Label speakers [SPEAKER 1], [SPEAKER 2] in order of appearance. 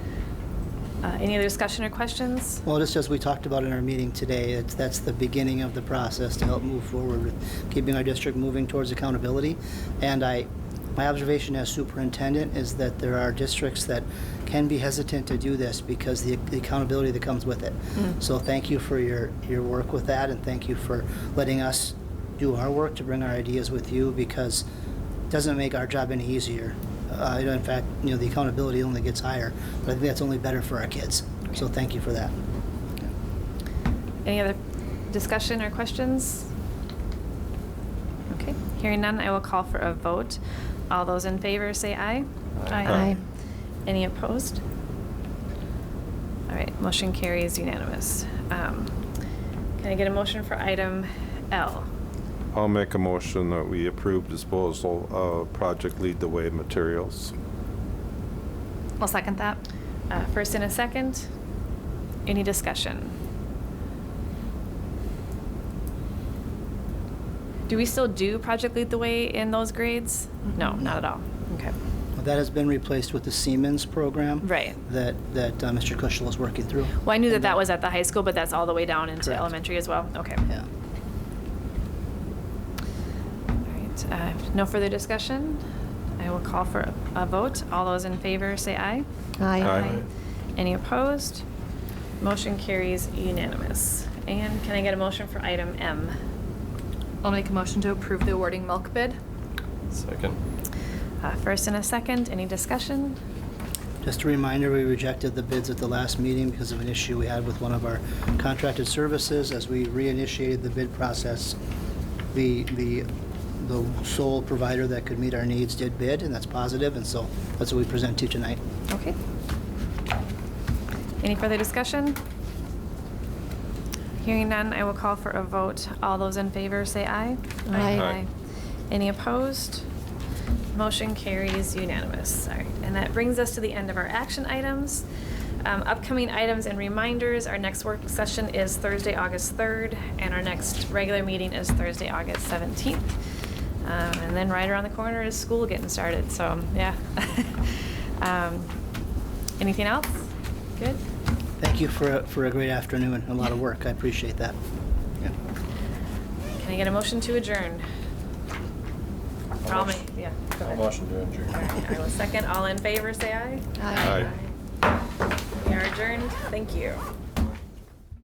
[SPEAKER 1] Uh, Any other discussion or questions?
[SPEAKER 2] Well, just as we talked about in our meeting today, it's, that's the beginning of the process to help move forward with keeping our district moving towards accountability. And I, my observation as superintendent is that there are districts that can be hesitant to do this because the the accountability that comes with it. So thank you for your, your work with that, and thank you for letting us do our work to bring our ideas with you, because it doesn't make our job any easier. Uh, you know, in fact, you know, the accountability only gets higher, but I think that's only better for our kids. So thank you for that.
[SPEAKER 1] Any other discussion or questions? Okay, hearing none, I will call for a vote. All those in favor say aye.
[SPEAKER 3] Aye.
[SPEAKER 1] Any opposed? All right, motion carries unanimous. Um, Can I get a motion for item L?
[SPEAKER 3] I'll make a motion that we approve disposal of Project Lead the Way materials.
[SPEAKER 4] I'll second that.
[SPEAKER 1] Uh, First and a second. Any discussion? Do we still do Project Lead the Way in those grades? No, not at all. Okay.
[SPEAKER 2] Well, That has been replaced with the Siemens program.
[SPEAKER 1] Right.
[SPEAKER 2] That, that uh, Mr. Kushel is working through.
[SPEAKER 1] Well, I knew that
[SPEAKER 2] And
[SPEAKER 1] that was at the high school, but that's all the way down into
[SPEAKER 2] Correct.
[SPEAKER 1] elementary as well? Okay.
[SPEAKER 2] Yeah.
[SPEAKER 1] All right. uh, No further discussion? I will call for a- a vote. All those in favor, say aye.
[SPEAKER 3] Aye.
[SPEAKER 1] Any opposed? Motion carries unanimous. And can I get a motion for item M?
[SPEAKER 4] I'll make a motion to approve the awarding milk bid.
[SPEAKER 5] Second.
[SPEAKER 1] Uh, First and a second, any discussion?
[SPEAKER 2] Just a reminder, we rejected the bids at the last meeting because of an issue we had with one of our contracted services. As we reinitiated the bid process, the, the, the sole provider that could meet our needs did bid, and that's positive, and so that's what we present to you tonight.
[SPEAKER 1] Okay. Any further discussion? Hearing none, I will call for a vote. All those in favor, say aye.
[SPEAKER 3] Aye. Aye.
[SPEAKER 1] Any opposed? Motion carries unanimous. All right, and that brings us to the end of our action items. Um, Upcoming items and reminders, our next work session is Thursday, August 3rd, and our next regular meeting is Thursday, August 17th. Um, And then right around the corner is school getting started, so, yeah. Um, Anything else? Good?
[SPEAKER 2] Thank you for, a- for a great afternoon and a lot of work. I appreciate that.
[SPEAKER 1] Can I get a motion to adjourn? I'll make- Yeah. go
[SPEAKER 5] I'll
[SPEAKER 1] ahead.
[SPEAKER 5] motion to adjourn.
[SPEAKER 1] All right, I will second. All in favor, say aye.
[SPEAKER 3] Aye.
[SPEAKER 1] We are adjourned. Thank you.